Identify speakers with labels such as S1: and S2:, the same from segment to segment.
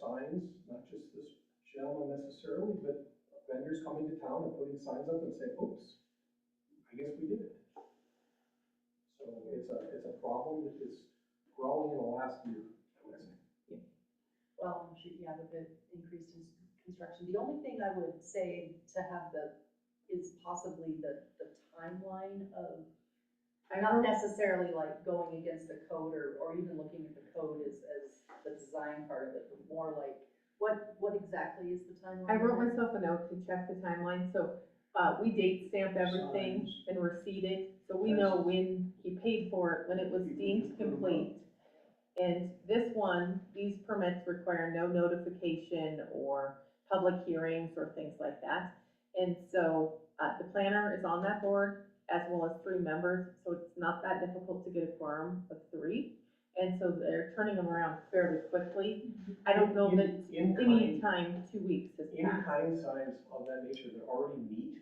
S1: signs, not just this gentleman necessarily, but vendors coming to town and putting signs up and saying, oops, I guess we did it. So it's a, it's a problem that is growing in the last year, I would say.
S2: Well, I'm sure, yeah, with the increased ins- construction, the only thing I would say to have the, is possibly the, the timeline of, I'm not necessarily like going against the code or, or even looking at the code as, as the design part of it, but more like, what, what exactly is the timeline?
S3: I wrote myself a note to check the timeline, so, uh, we date stamp everything
S1: Signs.
S3: and receipt it, so we know when he paid for it, when it was deemed complete. And this one, these permits require no notification or public hearings or things like that. And so, uh, the planner is on that board as well as three members, so it's not that difficult to get a quorum of three. And so they're turning them around fairly quickly. I don't know that
S1: In- in
S3: any
S1: kind-
S3: time, two weeks has passed.
S1: In-kind signs of that nature that already meet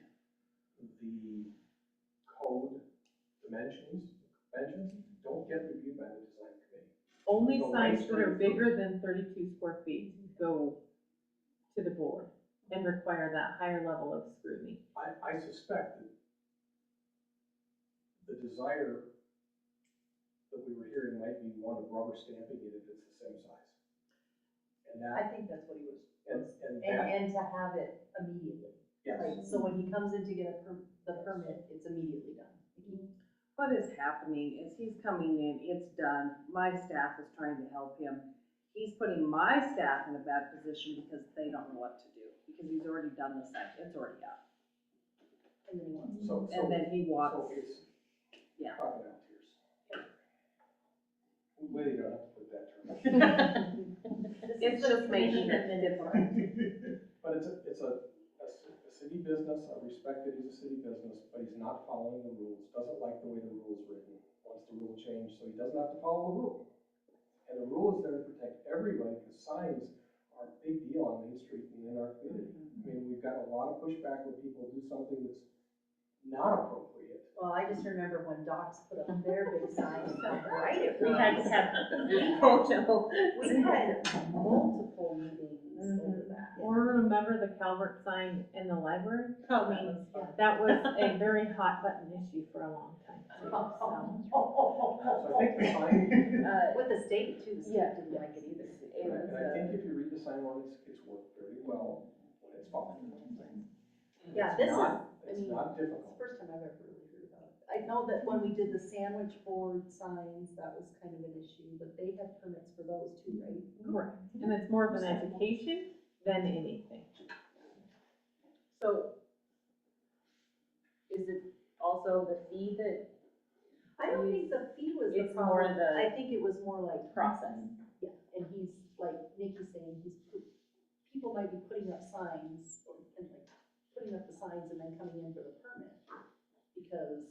S1: the code dimensions, dimensions, don't get reviewed by the design committee.
S3: Only
S1: Go
S3: signs
S1: right
S3: that are
S1: through.
S3: bigger than thirty-two square feet go to the board and require that higher level of scrutiny.
S1: I, I suspect that the desire that we were hearing might be one of rubber stamping it if it's the same size. And
S2: I
S1: that,
S2: think that's what he was,
S1: and,
S2: was,
S1: and
S2: and,
S1: that,
S2: and to have it immediately.
S1: yes,
S2: Like, so when he comes in to get a per, the permit, it's immediately
S3: Mm-hmm.
S2: done.
S4: What is happening is he's coming in, it's done, my staff is trying to help him. He's putting my staff in a bad position because they don't know what to do, because he's already done the site, it's already up.
S2: And then he wants
S1: so, so,
S4: And then he
S1: so
S4: walks,
S1: it's
S4: Yeah.
S1: crocodile tears. Well, you don't have to put that term.
S3: It's just making it
S2: different.
S1: But it's a, it's a, a ci- a city business, I respect that he's a city business, but he's not following the rules, doesn't like the way the rule's written, wants the rule changed, so he doesn't have to follow the rule. And the rule is there to protect everybody, because signs are a big deal on Main Street and in our community. I mean, we've got a lot of pushback when people do something that's not appropriate.
S2: Well, I just remember when docs put up their big signs, how bright it
S5: We had to
S2: was.
S5: have, oh no.
S2: We had multiple meetings over that.
S3: Or remember the Calvert sign in the library? I mean,
S2: fun.
S3: that was a very hot button issue for a long time. too,
S1: So
S3: so.
S1: I think the sign,
S2: With the state too, the state
S5: Yeah.
S2: didn't like it either.
S1: and I- and I think if you read the sign ordinance, it's worked very well when it's followed.
S2: Yeah,
S1: It's
S2: this is,
S1: not-
S2: I
S1: It's
S2: mean,
S1: not
S2: It's
S1: difficult.
S2: the first time I've ever really heard about it. I know that when we did the sandwich board signs, that was kind of an issue, but they have permits for those too, right?
S3: Correct, and it's more of an education than anything.
S5: So is it also the fee that
S2: I don't think the fee was the
S5: It's more
S2: problem.
S5: the-
S2: I think it was more like.
S5: process?
S2: Yeah, and he's, like Nikki's saying, he's, pu- people might be putting up signs or, and like, putting up the signs and then coming in for the permit, because.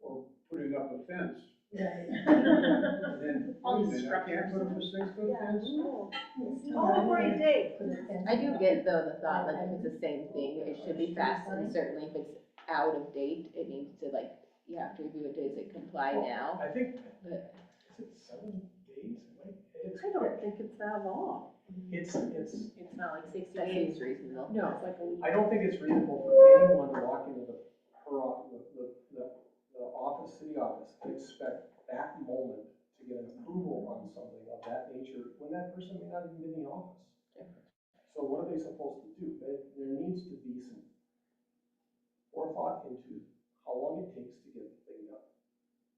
S6: or putting up a fence,
S2: Yeah.
S6: and then.
S5: All these
S6: wait a minute, I can't Put up a six-foot fence?
S2: no. All for a day.
S7: I do get though the thought, like if it's the same thing, it should be fast and certainly if it's out of date, it needs to like, you have to review it, does it comply now?
S1: I think,
S7: But-
S1: is it seven days? It might- It's,
S3: I don't think it's that long.
S1: it's, it's,
S5: It's not like sixty
S7: That
S5: days.
S7: seems reasonable.
S3: No.
S5: It's like a week.
S1: I don't think it's reasonable for anyone to walk into the, her, off- the- the, the, the office, city office, and expect that moment to get an approval on something of that nature, when that person may not even be in the office. So what are they supposed to do? There, there needs to be some forethought into how long it takes to get the thing done,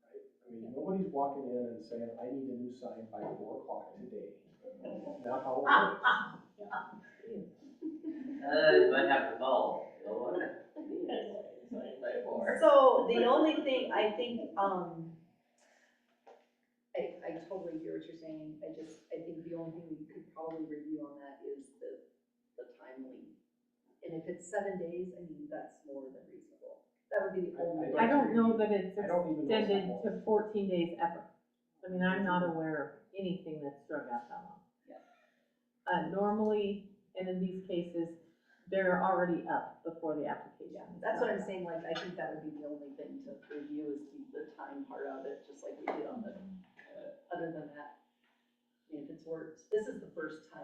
S1: right? I mean, nobody's walking in and saying, I need a new sign by four o'clock today. Not how it works.
S8: Uh, you might have to call, you know what? It's like, like, or-
S2: So the only thing, I think, um, I, I totally hear what you're saying. I just, I think the only thing we could probably review on that is the, the timely. And if it's seven days, I mean, that's more than reasonable. That would be the only.
S3: I don't know that it's
S1: I don't even know
S3: extended
S1: someone.
S3: to fourteen days ever. I mean, I'm not aware of anything that's drug out that long.
S2: Yeah.
S3: Uh, normally, and in these cases, they're already up before the application.
S2: Yeah,
S3: is
S2: that's what I'm
S3: done.
S2: saying, like, I think that would be the only thing to review is the, the time part of it, just like we did on the, uh, other than that. I mean, If it's worked, this is the first time